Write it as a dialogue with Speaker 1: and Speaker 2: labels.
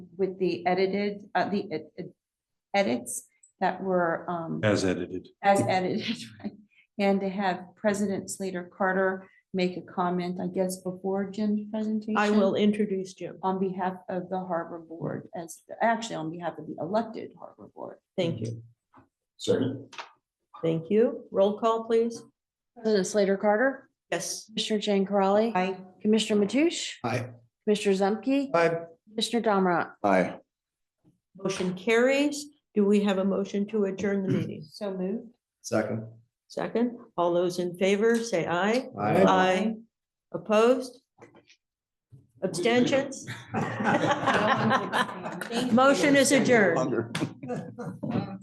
Speaker 1: with the edited, uh, the ed- ed- edits that were, um,
Speaker 2: as edited.
Speaker 1: as edited, right? And to have President Slater Carter make a comment, I guess, before Jim's presentation.
Speaker 3: I will introduce Jim.
Speaker 1: On behalf of the Harbor Board, as, actually on behalf of the elected Harbor Board.
Speaker 3: Thank you.
Speaker 4: Second.
Speaker 3: Thank you. Roll call, please.
Speaker 5: President Slater Carter,
Speaker 3: Yes.
Speaker 5: Commissioner Jane Corrali,
Speaker 1: I,
Speaker 5: Commissioner Mathush,
Speaker 4: Aye.
Speaker 5: Commissioner Zemke,
Speaker 4: Aye.
Speaker 5: Commissioner Domrat.
Speaker 4: Aye.
Speaker 3: Motion carries. Do we have a motion to adjourn the meeting?
Speaker 1: so moved.
Speaker 4: Second.
Speaker 3: Second, all those in favor, say aye.
Speaker 4: Aye.
Speaker 3: Aye. Opposed? Abstentions?
Speaker 1: No one's abstaining. Thank you.
Speaker 3: Motion is adjourned.